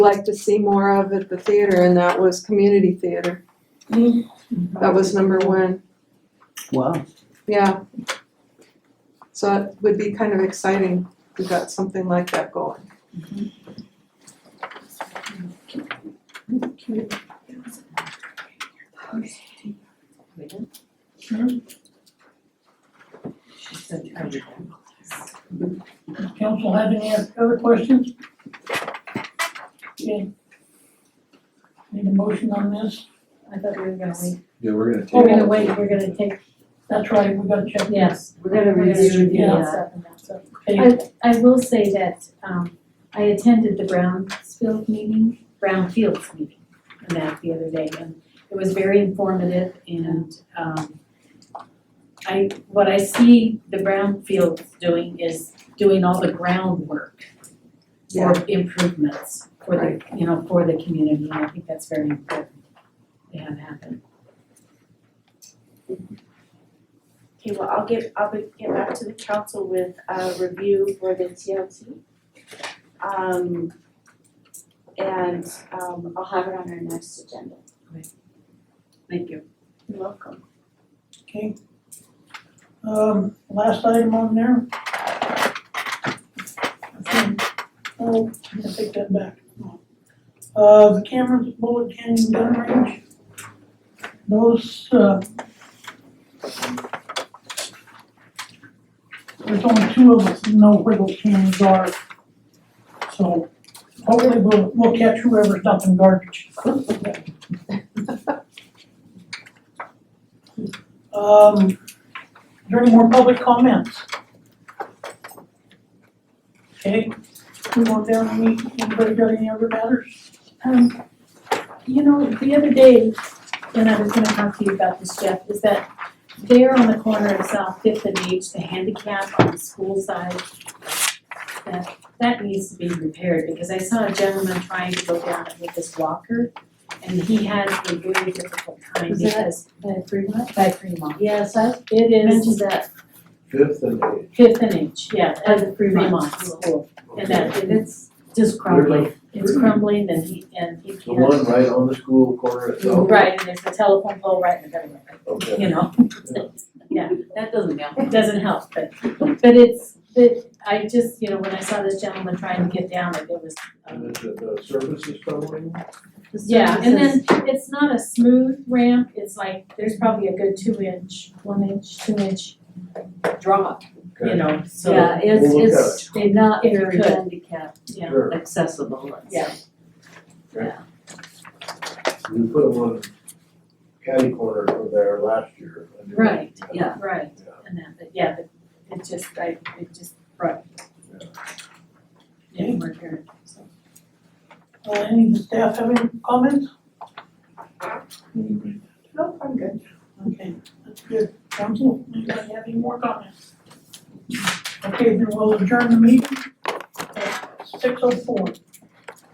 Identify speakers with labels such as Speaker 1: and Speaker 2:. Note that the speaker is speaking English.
Speaker 1: like to see more of at the theater, and that was community theater. That was number one,
Speaker 2: Wow.
Speaker 1: yeah. So it would be kind of exciting if we got something like that going.
Speaker 3: Council have any other questions? Okay. Need a motion on this?
Speaker 4: I thought we were gonna wait.
Speaker 5: Yeah, we're gonna take.
Speaker 4: We're gonna wait, we're gonna take,
Speaker 3: That's right, we gotta check.
Speaker 4: yes.
Speaker 2: We're gonna
Speaker 4: We're gonna
Speaker 2: review
Speaker 4: review
Speaker 2: the,
Speaker 4: that
Speaker 2: uh,
Speaker 4: stuff and that stuff.
Speaker 3: Okay,
Speaker 4: I will say that, um, I attended the Brownfield meeting, Brownfields meeting, and that the other day, and it was very informative and, um, I, what I see the Brownfields doing is doing all the groundwork for improvements for the, you know, for the community, and I think that's very important to have happen.
Speaker 6: Okay, well, I'll get, I'll be- get back to the council with a review for the TLT. Um, and, um, I'll have it on our next agenda.
Speaker 4: Thank you.
Speaker 6: You're welcome.
Speaker 3: okay. Um, last item on there. Okay. Oh, I'm gonna take that back. Uh, the cameras at Bullet Canyon Gun Range. Those, uh, there's only two of us who know where those cameras are. So hopefully we'll, we'll catch whoever's dumping garbage. Um, is there any more public comments? Okay, we want down, any, anybody got any other matters?
Speaker 4: Um, you know, the other day, when I was gonna talk to you about this, Jeff, is that there on the corner of South Fifth and H, the handicap on the school side, that, that needs to be repaired, because I saw a gentleman trying to go down it with his walker, and he had a really difficult time
Speaker 7: Is that-
Speaker 4: because
Speaker 7: At Fremont?
Speaker 4: by Fremont.
Speaker 7: Yes, I
Speaker 4: It
Speaker 7: mentioned
Speaker 4: is
Speaker 7: that.
Speaker 5: Fifth and eighth.
Speaker 4: Fifth and H, yeah, at the Fremont
Speaker 7: Fremont.
Speaker 4: School, and that, and it's just
Speaker 5: There's a-
Speaker 4: crumbling, it's crumbling, and he, and he can't.
Speaker 5: The one right on the school corner itself.
Speaker 4: Right, and there's a telephone pole right in the middle of it,
Speaker 5: Okay.
Speaker 4: you know?
Speaker 5: Yeah.
Speaker 4: Yeah, that doesn't help, it doesn't help, but, but it's, but I just, you know, when I saw this gentleman trying to get down it, it was, um,
Speaker 5: And then the, the service is coming.
Speaker 4: yeah, and then it's not a smooth ramp, it's like, there's probably a good two inch, one inch, two inch drop, you
Speaker 5: Okay.
Speaker 4: know, so, yeah.
Speaker 7: Yeah, it's,
Speaker 5: We'll look
Speaker 7: it's they're not
Speaker 4: If you
Speaker 7: very
Speaker 4: could.
Speaker 7: handicap
Speaker 5: Sure.
Speaker 7: accessible, let's
Speaker 4: Yeah.
Speaker 5: We put them on catty corner over there last year. I mean,
Speaker 4: Right,
Speaker 7: yeah.
Speaker 4: Right,
Speaker 5: Yeah.
Speaker 4: and that, but yeah, but it just, I, it just, right.
Speaker 5: Yeah.
Speaker 4: Yeah, we're here, so.
Speaker 3: Uh, any of the staff have any comments?
Speaker 6: Nope, I'm good.
Speaker 3: Okay, that's good. Council, anybody have any more comments? Okay, then we'll adjourn the meeting at six oh four.